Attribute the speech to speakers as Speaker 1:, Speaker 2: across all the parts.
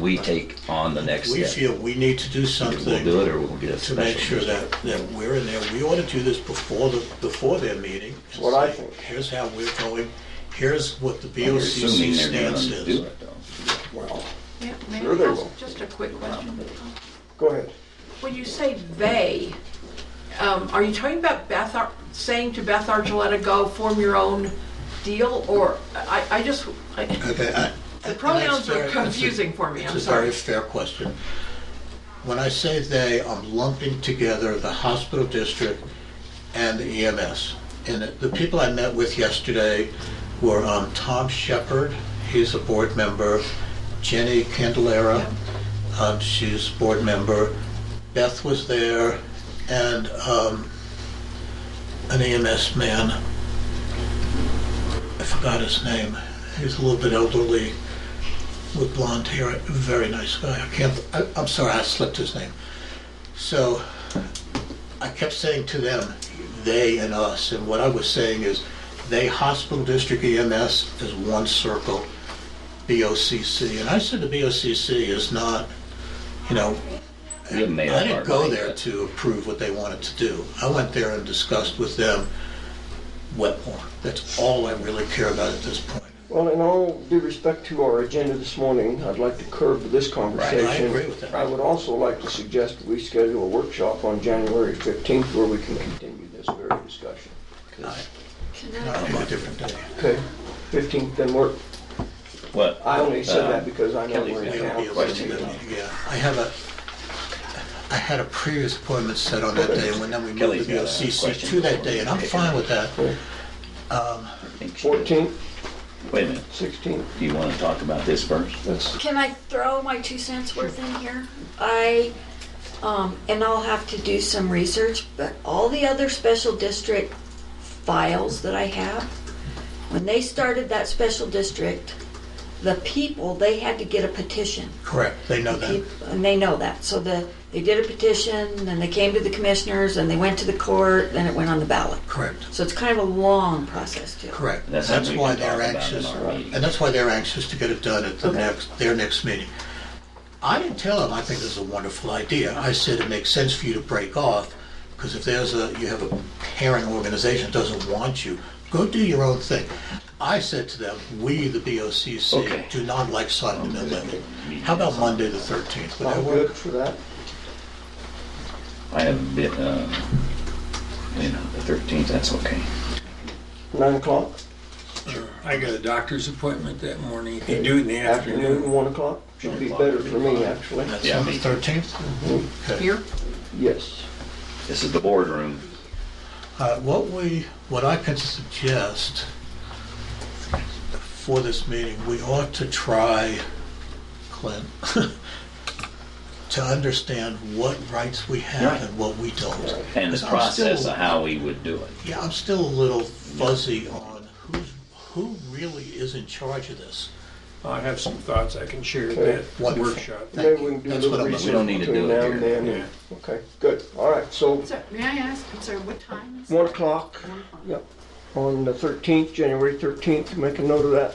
Speaker 1: we take on the next
Speaker 2: We
Speaker 1: step.
Speaker 2: feel we need to do
Speaker 1: Either
Speaker 2: something.
Speaker 1: We'll do it or we'll get a
Speaker 2: to
Speaker 1: special.
Speaker 2: make sure
Speaker 1: meeting.
Speaker 2: that, that we're in there. We ought to do this before the, before their meeting. and
Speaker 3: What I
Speaker 2: say,
Speaker 3: think.
Speaker 2: Here's how we're going, here's what the
Speaker 1: You're
Speaker 2: BOCC
Speaker 1: assuming they're
Speaker 2: stance
Speaker 1: gonna do
Speaker 2: is.
Speaker 1: it though.
Speaker 3: Well,
Speaker 4: Yeah, may
Speaker 3: Sure they
Speaker 4: I ask
Speaker 3: will.
Speaker 4: just a quick question?
Speaker 3: go ahead.
Speaker 4: When you say "they," um, are you talking about Beth, Ar- saying to Beth Archuleta, go form your own deal? Or, I, I just, I-
Speaker 2: Okay, I-
Speaker 4: the pronouns
Speaker 2: and
Speaker 4: are
Speaker 2: that's fair.
Speaker 4: confusing for me,
Speaker 2: It's
Speaker 4: I'm
Speaker 2: a very
Speaker 4: sorry.
Speaker 2: fair question. When I say they, I'm lumping together the hospital district and the EMS. And the- the people I met with yesterday were um, Tom Shepard, he's a board member, Jenny Candelara, um, she's a board member, Beth was there, and um, an EMS man. I forgot his name. He's a little bit elderly with blonde hair, a very nice guy. I can't, I, I'm sorry, I slipped his name. So I kept saying to them, they and us, and what I was saying is, they, hospital district EMS is one circle, BOCC, and I said the BOCC is not, you know,
Speaker 1: We haven't made
Speaker 2: I
Speaker 1: up our
Speaker 2: didn't go
Speaker 1: mind
Speaker 2: there
Speaker 1: yet.
Speaker 2: to approve what they wanted to do. I went there and discussed with them Wetmore. That's all I really care about at this point.
Speaker 3: Well, in all due respect to our agenda this morning, I'd like to curb this conversation.
Speaker 2: agree with that.
Speaker 3: I would also like to suggest we schedule a workshop on January 15th where we can continue this very discussion.
Speaker 2: Not on a different day.
Speaker 3: Okay, 15th, then work.
Speaker 1: What?
Speaker 3: I only said
Speaker 1: Uh,
Speaker 3: that because I know
Speaker 1: Kelly's
Speaker 3: we're
Speaker 1: gonna
Speaker 3: in
Speaker 2: It'll
Speaker 3: town.
Speaker 2: be a
Speaker 3: for a
Speaker 2: limited
Speaker 3: meeting.
Speaker 2: meeting, Yeah, I have a, I had a previous appointment set on that day, and when then we moved
Speaker 1: Kelly's
Speaker 2: the
Speaker 1: got a
Speaker 2: BOCC
Speaker 1: question
Speaker 2: to that
Speaker 1: before
Speaker 2: day,
Speaker 1: we
Speaker 2: and I'm
Speaker 1: take it.
Speaker 2: fine with that.
Speaker 1: I think she does.
Speaker 3: 14th,
Speaker 1: Wait a minute,
Speaker 3: 16th,
Speaker 1: do you wanna talk about this first?
Speaker 3: that's,
Speaker 5: Can I throw my two cents worth in here? I, um, and I'll have to do some research, but all the other special district files that I have, when they started that special district, the people, they had to get a petition.
Speaker 2: Correct, they know that.
Speaker 5: Peop- And they know that. So the, they did a petition, then they came to the commissioners, and they went to the court, then it went on the ballot.
Speaker 2: Correct,
Speaker 5: So it's kind of a long process too.
Speaker 2: correct.
Speaker 1: That's
Speaker 2: That's
Speaker 1: something we
Speaker 2: why
Speaker 1: can talk
Speaker 2: they're
Speaker 1: about in
Speaker 2: anxious,
Speaker 1: our meeting.
Speaker 2: and that's why they're anxious to get it done at the
Speaker 5: Okay.
Speaker 2: next, their next meeting. I didn't tell them, I think this is a wonderful idea. I said it makes sense for you to break off, because if there's a, you have a parent organization that doesn't want you, go do your own thing. I said to them, we, the
Speaker 1: Okay.
Speaker 2: BOCC, do not like signing the amendment. How about Monday, the 13th? Would that
Speaker 3: I'm
Speaker 2: work?
Speaker 3: good for that.
Speaker 1: I have a bit, uh, you know, the thirteenth, that's okay.
Speaker 3: 9 o'clock,
Speaker 6: I got a doctor's appointment that morning. Can you do it in the
Speaker 3: afternoon,
Speaker 6: afternoon?
Speaker 3: 1 o'clock, should be better for me, actually.
Speaker 2: That's
Speaker 1: Yeah,
Speaker 2: on the
Speaker 1: me.
Speaker 2: 13th? Okay.
Speaker 4: Here?
Speaker 3: Yes.
Speaker 1: This is the boardroom.
Speaker 2: Uh, What we, what I can suggest for this meeting, we ought to try, Clint, to understand what rights we have
Speaker 1: Right.
Speaker 2: and what we don't.
Speaker 1: And the
Speaker 2: 'Cause I'm still-
Speaker 1: process of how we would do it.
Speaker 2: Yeah, I'm still a little fuzzy on who's, who really is in charge of this.
Speaker 6: I have some thoughts I can share at that
Speaker 2: Wonderful.
Speaker 6: workshop.
Speaker 2: Thank
Speaker 3: Maybe
Speaker 2: you.
Speaker 3: we can do a
Speaker 2: That's what
Speaker 3: little
Speaker 2: I'm- we
Speaker 3: research
Speaker 1: don't need to
Speaker 3: between
Speaker 1: do it
Speaker 3: now and
Speaker 1: here.
Speaker 3: then.
Speaker 6: Yeah.
Speaker 3: Okay, good, all right, so
Speaker 4: So, May I ask, I'm sorry, what time is it?
Speaker 3: 1 o'clock, yep, on the 13th, January 13th, make a note of that,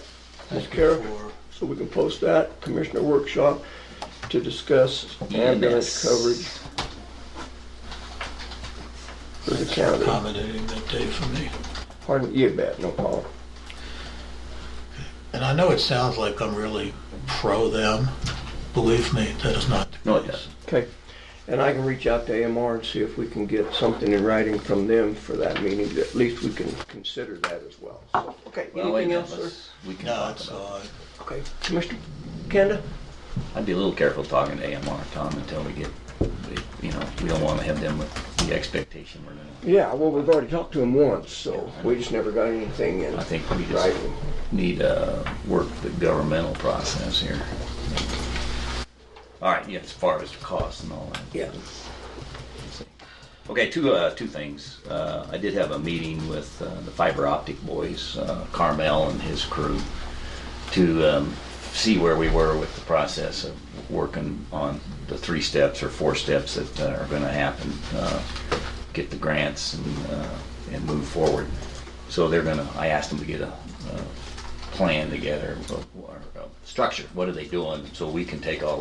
Speaker 3: Ms. Kara,
Speaker 2: For-
Speaker 3: so we can post that, commissioner workshop to discuss
Speaker 1: EMS.
Speaker 3: ambulance coverage for the county.
Speaker 1: Uh,
Speaker 2: accommodating that day for me.
Speaker 3: Pardon, you bet, no problem.
Speaker 2: And I know it sounds like I'm really pro them. Believe me, that is not the case.
Speaker 1: No, it doesn't.
Speaker 3: Okay, and I can reach out to AMR and see if we can get something in writing from them for that meeting, that at least we can consider that as well. So, Okay,
Speaker 1: Well, wait,
Speaker 3: anything
Speaker 1: now,
Speaker 3: else, sir?
Speaker 1: let's- we can
Speaker 2: No,
Speaker 1: talk
Speaker 2: it's,
Speaker 1: about it.
Speaker 2: uh,
Speaker 3: Okay, Commissioner Kanda?
Speaker 1: I'd be a little careful talking to AMR, Tom, until we get, we- you know, we don't wanna have them with the expectation we're gonna,
Speaker 3: Yeah, well, we've already talked to him once, so we just never got anything in
Speaker 1: I think we just-
Speaker 3: writing.
Speaker 1: need, uh, work the governmental process here. All right, yeah, as far as the cost and all that.
Speaker 3: Yeah.
Speaker 1: Okay, two, uh, two things. Uh, I did have a meeting with, uh, the fiber optic boys, uh, Carmel and his crew, to, um, see where we were with the process of working on the three steps or four steps that uh, are gonna happen, uh, get the grants and, uh, and move forward. So they're gonna, I asked them to get a, uh, a plan together, or, or a structure, what are they doing, so we can take all